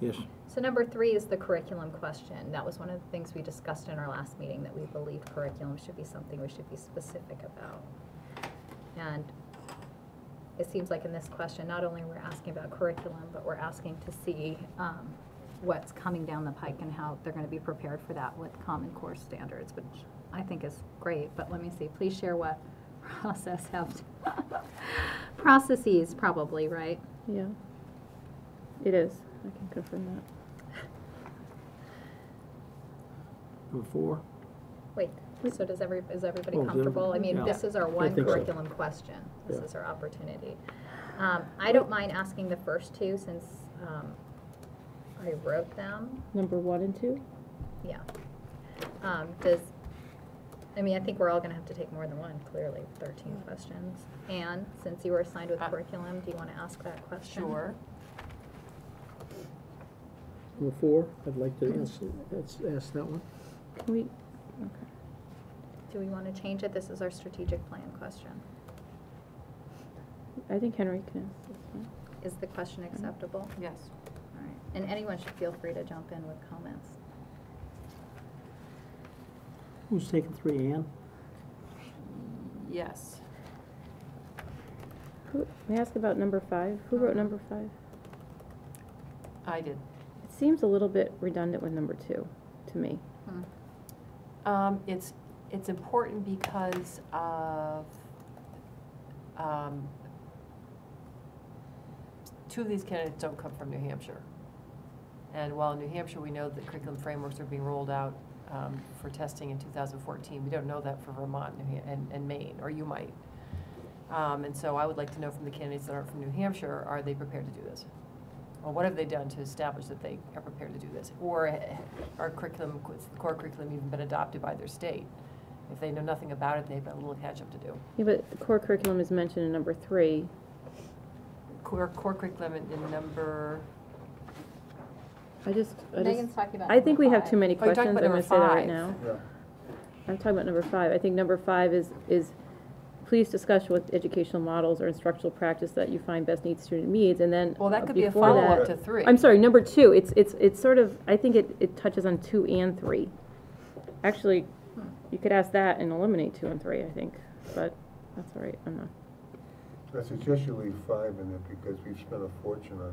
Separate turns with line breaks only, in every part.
Yes.
So number three is the curriculum question. That was one of the things we discussed in our last meeting, that we believe curriculum should be something we should be specific about. And it seems like in this question, not only we're asking about curriculum, but we're asking to see um, what's coming down the pike and how they're going to be prepared for that with Common Core standards, which I think is great, but let me see, please share what process have, processes probably, right?
Yeah. It is. I can confirm that.
Number four?
Wait, so does every, is everybody
Oh, is
comfortable? I
everybody-
mean,
yeah.
this is our
I
one
think so.
curriculum question. This
Yeah.
is our opportunity. Um, I don't mind asking the first two since, um, I wrote them,
Number one and two?
yeah. Um, does, I mean, I think we're all gonna have to take more than one, clearly, thirteen questions. Anne, since you were assigned with
Uh,
curriculum, do you wanna ask that question?
Sure.
Number four, I'd like to ask, let's ask that one.
Can we? Okay.
Do we wanna change it? This is our strategic plan question.
I think Henry can ask this one.
Is the question acceptable?
Yes.
All right, and anyone should feel free to jump in with comments.
Who's taking three, Ann?
Yes.
Who, may I ask about number five? Who wrote
Mhm.
number five?
I did.
It seems a little bit redundant with number two, to me.
Hmm.
Um, it's, it's important because of, um, two of these candidates don't come from New Hampshire. And while in New Hampshire, we know that curriculum frameworks are being rolled out, um, for testing in two thousand fourteen, we don't know that for Vermont New Ham- and, and Maine, or you might. Um, and so I would like to know from the candidates that aren't from New Hampshire, are they prepared to do this? Or what have they done to establish that they are prepared to do this? Or eh, our curriculum, core curriculum even been adopted by their state? If they know nothing about it, they've got a little catch-up to do.
Yeah, but the core curriculum is mentioned in number three.
Core, core curriculum in- in number,
I just, I
Megan's
just,
talking about.
I think we have
five.
too many
Oh, you're
questions.
talking
I'm
about
gonna say
number
that right
five.
now. I'm talking about number five. I think number five is, is please discuss what educational models or instructural practice that you find best meets student needs, and then.
well, that
uh,
could be a
before that-
follow-up to 3
I'm sorry, number two, it's, it's, it's sort of, I think it, it touches on two and three. Actually,
Hmm.
you could ask that and eliminate two and three, I think, but that's all right, I'm not.
I suggest you leave five in there because we've spent a fortune on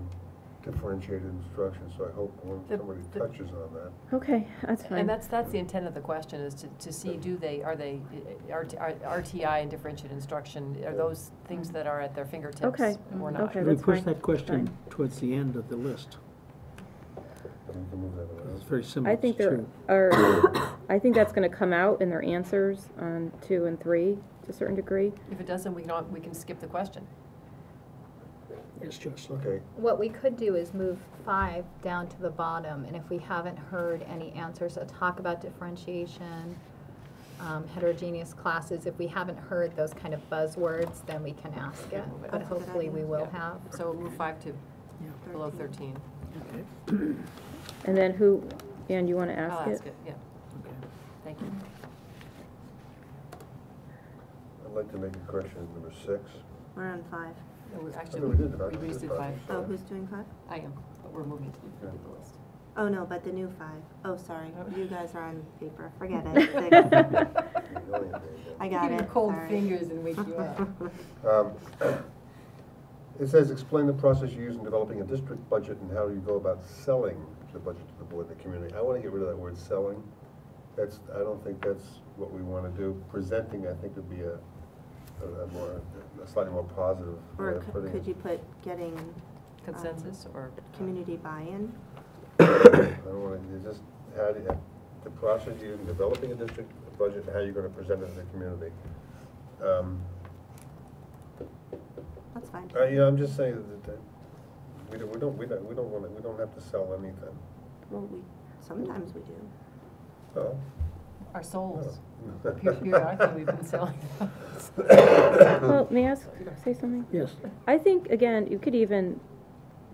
differentiated instruction, so I hope when
The-
somebody
the-
touches on that.
Okay, that's
And
fine.
that's, that's the intent of the question, is to, to see, do they, are they, eh, RT are- RTI and differentiated instruction, are those things that are at their fingertips?
Okay, Mm-hmm.
Or not?
okay.
Let me
that's
push
fine.
that question
Fine.
towards the end of the list.
And we can move that around.
It's very similar
I
to
think there
two.
are, I think that's gonna come out in their answers on two and three to a certain degree.
If it doesn't, we can, al- we can skip the question.
It's just,
Okay,
What we could do is move five down to the bottom, and if we haven't heard any answers, uh, talk about differentiation, um, heterogeneous classes, if we haven't heard those kind of buzzwords, then we can ask it,
Move
but
it. That's a good
hopefully we will
Yeah.
have.
So we'll move five to below 13.
okay,
And then who, and you wanna ask
I'll
it?
ask it, yeah,
okay.
thank you.
I'd like to make a correction in number six.
We're on five.
No, we- Actually,
we
we
did five.
we just did five.
Oh, who's doing five?
I am, but we're moving to the-
Okay.
the list.
Oh, no, but the new five. Oh, sorry.
Oh.
You guys are on paper. Forget it. Six. I got
Give you
it.
cold
Sorry.
fingers and wake you up.
Um, It says, explain the process you use in developing a district budget and how you go about selling the budget to the board and the community. I want to get rid of that word selling. That's, I don't think that's what we want to do. Presenting, I think, would be a, a a more, a slightly more positive way
Or
of
c-
putting
could
it.
you put getting
Consensus
Um,
or?
community buy-in?
I don't want to, you just, how do you, the process you use in developing a district budget and how you're going to present it to the community. Um,
That's fine.
Uh, yeah, I'm just saying that, uh, we don't, we don't, we don't, we don't wanna, we don't have to sell anything.
Well, we, sometimes we do.
Oh,
Our souls.
no.
Pure- Periodically, we've been selling those.
Well, may I ask, say something?
Yes,
I think, again, you could even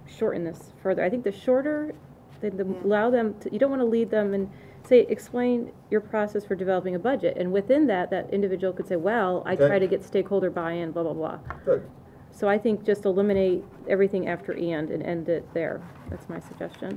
shorten this further. I think the shorter, the, the,
Yeah.
allow them, to you don't want to lead them and say, explain your process for developing a budget. And within that, that individual could say, well, I
Okay.
try to get stakeholder buy-in, blah, blah, blah.
Good,
So I think just eliminate everything after and and end it there. That's my suggestion.